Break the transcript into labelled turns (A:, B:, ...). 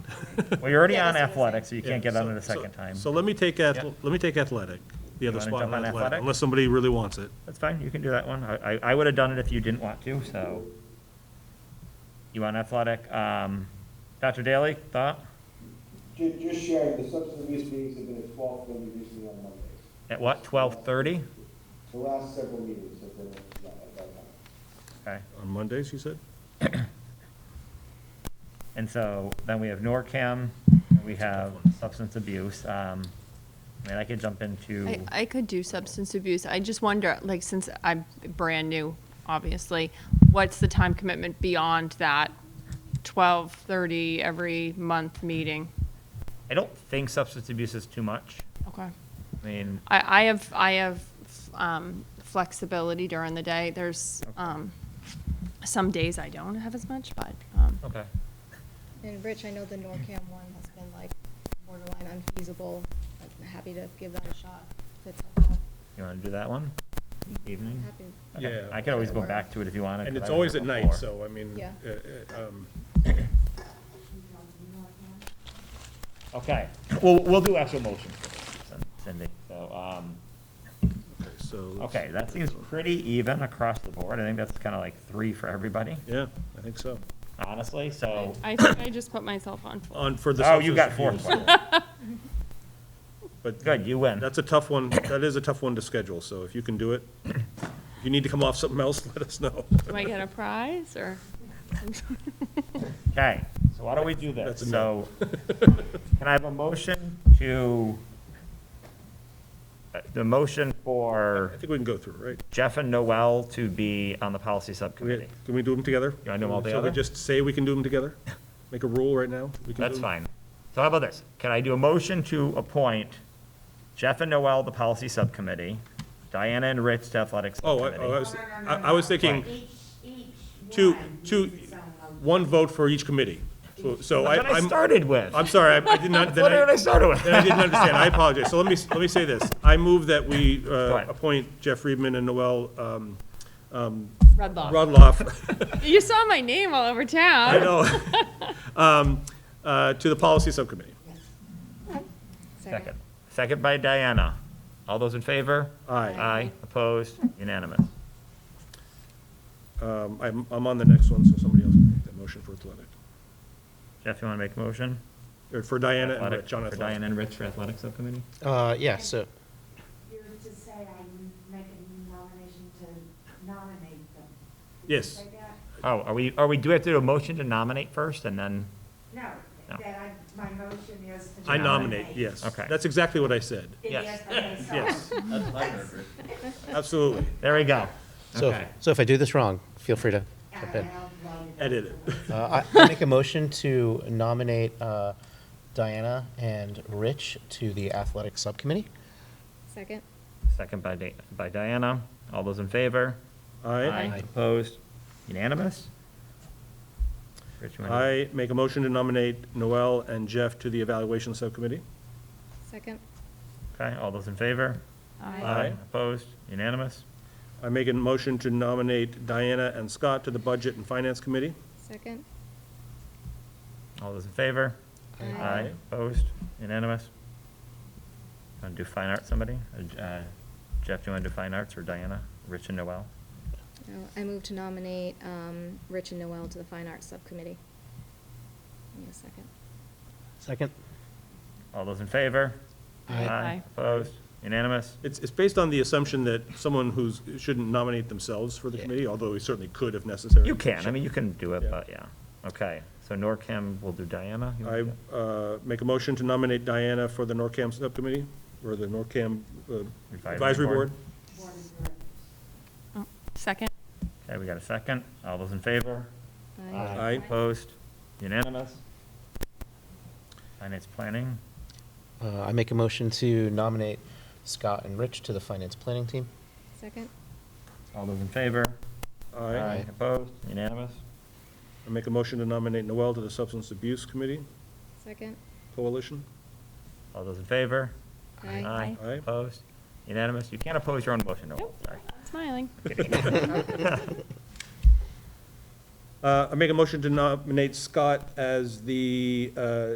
A: Well, you're already
B: Yeah,
A: on
B: that's what I'm
A: athletics, so you
C: Yeah,
A: can't get on
C: so-
A: it a
C: so-
A: second time.
C: So let me take, ath- let me take athletic, the other
A: wanna
C: spot
A: jump
C: on
A: on
C: athletic,
A: athletic?
C: unless somebody really wants it.
A: That's fine, you can do that one. I, I, I would have done it if you didn't want to, so. You on athletic, um, Dr. Daly, thought,
D: Ju- Just sharing, the substance abuse meetings have been at twelve, they'll be recently on Mondays.
A: at what, twelve thirty?
D: The last several meetings have been at that at that time.
A: Okay,
C: On Mondays, you said?
A: and so then we have NORCAM, and we have substance abuse, um, I mean, I could jump into,
E: I, I could do substance abuse. I just wonder, like, since I'm brand new, obviously, what's the time commitment beyond that twelve thirty every month meeting?
A: I don't think substance abuse is too much.
E: Okay.
A: I mean,
E: I, I have, I have, um, flexibility during the day. There's, um, some days I don't have as much, but, um,
A: okay,
B: And Rich, I know the NORCAM one has been like borderline unfeasible. I'm happy to give that a shot. That's helpful.
A: you wanna do that one, evening?
B: Happy.
A: Okay. I could always go back to it if you wanted.
C: And
A: 'cause
C: it's
A: I was
C: always
A: there
C: at night,
A: before.
C: so I mean,
B: Yeah.
C: uh, uh, um,
A: Okay, well, we'll do actual motions for this, Cindy, so, um,
C: okay, so. let's-
A: okay, that seems pretty even across the board, I think that's kind of like three for everybody,
C: Yeah, I think so.
A: honestly,
C: Oh.
A: so.
E: I, think I just put myself on.
C: On for the.
A: Oh, you got
C: substance
A: four,
C: abuse, But
A: good, you win.
C: that's a tough one, that is a tough one to schedule, so if you can do it, if you need to come off something else, let us know.
E: Do I get a prize or?
A: Okay, so why don't we do this?
C: That's a
A: So,
C: no.
A: can I have a motion to, uh, the motion for
C: I think we can go through, right?
A: Jeff and Noel to be on the policy
C: We-
A: subcommittee?
C: Can we do them together?
A: You wanna do 'em all
C: So
A: together?
C: we just say we can do them together? Make a rule right now? We can do
A: That's
C: 'em?
A: fine. So how about this? Can I do a motion to appoint Jeff and Noel, the policy subcommittee, Diana and Rich to athletics
C: Oh, I, oh, I
A: subcommittee?
C: was, I I was thinking, two, two, one vote for each committee. So- So I,
A: That's what I
C: I'm,
A: started with.
C: I'm sorry, I I did not, then
A: That's what I
C: I,
A: started with.
C: then I didn't understand, I apologize. So let me, let me say this. I move that we uh,
A: ahead.
C: appoint Jeff Friedman and Noel um,
E: Redlaw.
C: Rudloff,
E: You saw my name all over
C: I
E: town.
C: know, um, uh, to the policy subcommittee.
A: Second. Second by Diana. All those in favor?
C: Aye.
A: Aye, opposed, unanimous.
C: Um, I'm, I'm on the next one, so somebody else can make that motion for athletic,
A: Jeff, you want to make a motion?
C: or for Diana and
A: Athletic-
C: Rich on
A: For
C: athletic.
A: Diana and Rich for athletic subcommittee?
F: Uh, yeah, so,
G: You're to say I make a nomination to nominate them. Did you
C: Yes.
G: say that?
A: Oh, are we, are we, do we have to do a motion to nominate first and then?
G: No,
A: No.
G: that I, my motion is to.
C: I nominate, yes.
A: Okay.
C: That's exactly what I said.
G: It is,
A: Yes.
G: okay, sorry.
C: Yes, absolutely.
A: There we go.
F: so,
A: Okay.
F: so if I do this wrong, feel free to jump
G: I
F: in.
G: outlined it.
C: Edit it.
F: Uh, I I make a motion to nominate uh, Diana and Rich to the athletic subcommittee.
B: Second?
A: Second by, Di- by Diana. All those in favor?
C: Aye.
F: Aye.
A: Opposed? Unanimous? Rich, you wanna-
C: I make a motion to nominate Noel and Jeff to the evaluation subcommittee.
B: Second?
A: Okay, all those in favor?
B: Aye.
A: Opposed? Unanimous?
C: I make a motion to nominate Diana and Scott to the budget and finance committee.
B: Second?
A: All those in favor?
C: Aye.
A: Opposed? Unanimous? Want to do fine arts, somebody? Uh, Jeff, do you want to do fine arts or Diana? Rich and Noel?
B: No, I move to nominate um, Rich and Noel to the Fine Arts Subcommittee. Need a second?
F: Second?
A: All those in favor?
F: Aye.
E: Aye.
A: Opposed? Unanimous?
C: It's, it's based on the assumption that someone who's, shouldn't nominate themselves for the
F: Yeah.
C: committee, although we certainly could if necessary.
A: You can, I mean, you can do it,
C: Yeah.
A: but yeah. Okay, so NORCAM will do Diana? You wanna
C: I
A: do it?
C: uh, make a motion to nominate Diana for the NORCAM subcommittee, or the NORCAM uh,
A: Advisory
C: advisory
A: board.
C: board.
G: Board of Directors.
E: Oh, Second?
A: Okay, we got a second. All those in favor?
B: Aye.
C: Aye.
A: Opposed? Unanimous? Finance planning?
F: Uh, I make a motion to nominate Scott and Rich to the finance planning team.
B: Second?
A: All those in favor?
C: Aye.
A: Opposed? Unanimous?
C: I make a motion to nominate Noel to the substance abuse committee
B: Second?
C: coalition.
A: All those in favor?
B: Aye.
A: Aye.
C: Aye.
A: Opposed? Unanimous? You can't oppose your own motion, Noel,
E: Nope.
A: sorry.
E: Smiling.
C: Uh, I make a motion to nominate Scott as the uh,